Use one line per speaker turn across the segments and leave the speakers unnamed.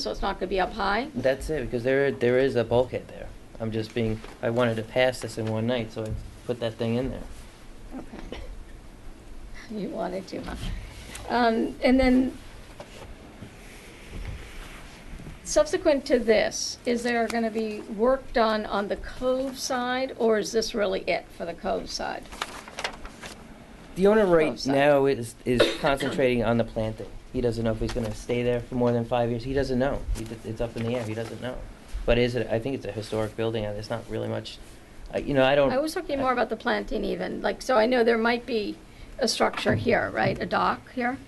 so it's not gonna be up high?
That's it, because there, there is a bulkhead there. I'm just being, I wanted to pass this in one night, so I put that thing in there.
Okay. You wanted to, huh? Um, and then subsequent to this, is there gonna be work done on the cove side, or is this really it for the cove side?
The owner
Oh,
right
sorry.
now is, is concentrating on the planting. He doesn't know if he's gonna stay there for more than five years. He doesn't know. He d- It's up in the air. He doesn't know. But is it, I think it's a historic building, and there's not really much, I- you know, I don't.
I was talking more about the planting even, like, so I know there might be a structure here, right, a dock here,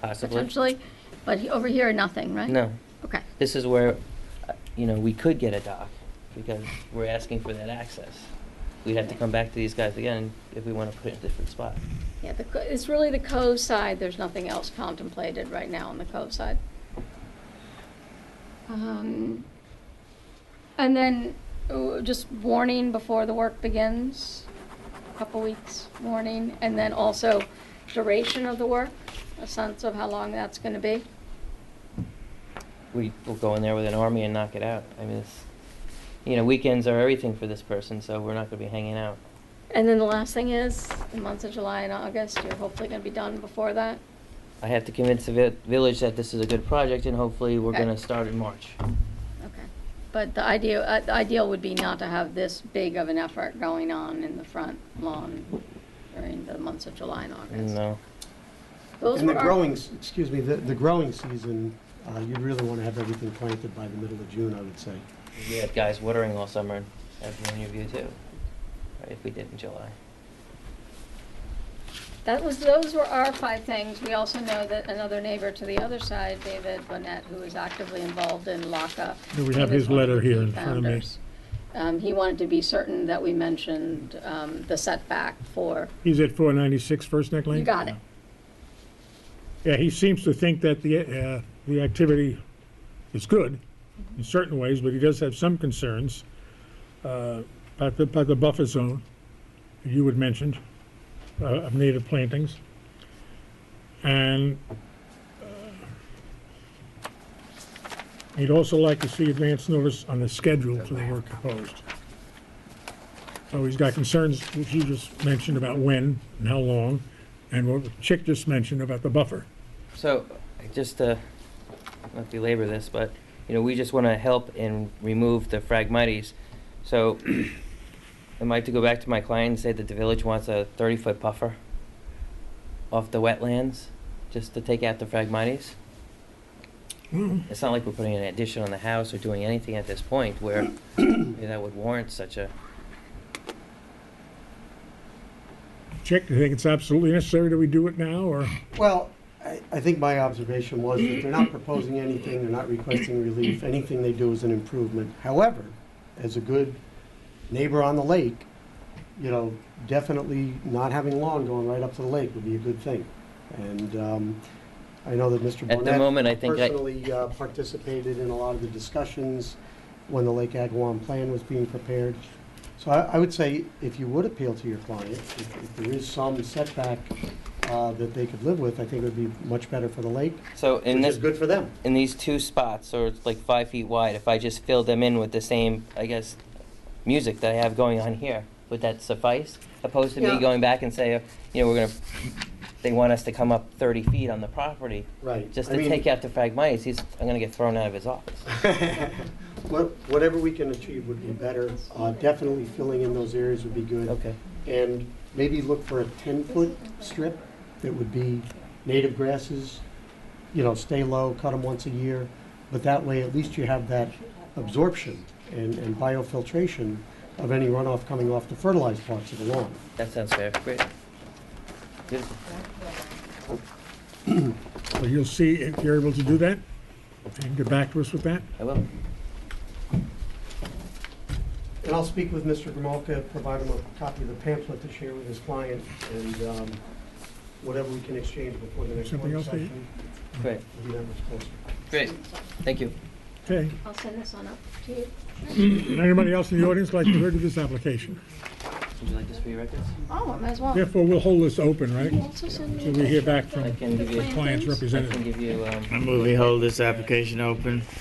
Possibly.
potentially, but he- over here, nothing, right?
No.
Okay,
This is where, uh, you know, we could get a dock, because we're asking for that access. We'd have to come back to these guys again if we wanna put it in a different spot.
yeah, the, co- it's really the cove side, there's nothing else contemplated right now on the cove side. Um, And then, uh, just warning before the work begins, a couple weeks warning, and then also duration of the work, a sense of how long that's gonna be.
we will go in there with an army and knock it out. I mean, it's, you know, weekends are everything for this person, so we're not going to be hanging out.
And then the last thing is, the months of July and August, you're hopefully gonna be done before that.
I have to convince the vi- village that this is a good project, and hopefully, we're going to
Okay.
start in March.
Okay. But the idea, uh, the ideal would be not to have this big of an effort going on in the front lawn during the months of July and August.
No,
Those
And the
were our-
growing, s- excuse me, the, the growing season, uh, you'd really want to have everything planted by the middle of June, I would say.
we had guys watering all summer, and every one of you too. Right, if we did in July,
That was, those were our five things. We also know that another neighbor to the other side, David Bonnet, who is actively involved in LACA.
Yeah, we have
he was
his
one of the
letter here
key
in front of me.
founders. Um, he wanted to be certain that we mentioned, um, the setback for,
He's at 496 First Neck Lane?
you got it.
Yeah, he seems to think that the, uh, the activity is good in certain ways, but he does have some concerns uh, about the, about the buffer zone that you had mentioned uh, of native plantings. And uh, he'd also like to see advance notice on the schedule for the work proposed. So he's got concerns, which you just mentioned about when and how long, and what Chick just mentioned about the buffer.
so I just uh, not belabor this, but you know, we just want to help and remove the fragmites. So, am I to go back to my client and say that the village wants a 30-foot buffer off the wetlands, just to take out the fragmites? It's not like we're putting an addition on the house or doing anything at this point where that would warrant such a,
Chick, do you think it's absolutely necessary that we do it now, or?
Well, I, I think my observation was that they're not proposing anything, they're not requesting relief, anything they do is an improvement. However, as a good neighbor on the lake, you know, definitely not having lawn going right up to the lake would be a good thing. And, um, I know that Mr.
at
Burnett.
the moment, I think I,
personally uh, participated in a lot of the discussions when the Lake Agawam plan was being prepared. So I, I would say, if you would appeal to your client, if if there is some setback uh, that they could live with, I think it would be much better for the lake,
so in
which is
this,
good for them.
in these two spots, or it's like five feet wide, if I just fill them in with the same, I guess, music that I have going on here, would that suffice? Opposed to me
Yeah.
going back and say, you know, we're gonna, they want us to come up thirty feet on the property,
Right.
just to take out the fragmites, he's, I'm gonna get thrown out of his office.
Whatever we can achieve would be better. Uh, Definitely filling in those areas would be good.
Okay,
and maybe look for a 10-foot strip that would be native grasses, you know, stay low, cut them once a year, but that way, at least you have that absorption and and biofiltration of any runoff coming off the fertilized parts of the lawn.
that sounds fair, great. Beautiful.
Well, you'll see if you're able to do that, and get back to us with that.
I will.
And I'll speak with Mr. Gromolka, provide him a copy of the pamphlet to share with his client, and um, whatever we can exchange before the next
Something
work
else, Dave?
session.
Great,
will be that much closer.
great, thank you.
Okay.
I'll send this on up to you.
Anybody else in the audience like to hear to this application?
Would you like this for your records?
Oh, I might as well.
Therefore, we'll hold this open, right?
Can you also send me
Till
a
we
picture
hear back
of
from
the-
I can
the
give you-
plan,
Clients
please?
I can
representative.
give you, um.
I move we hold this application open.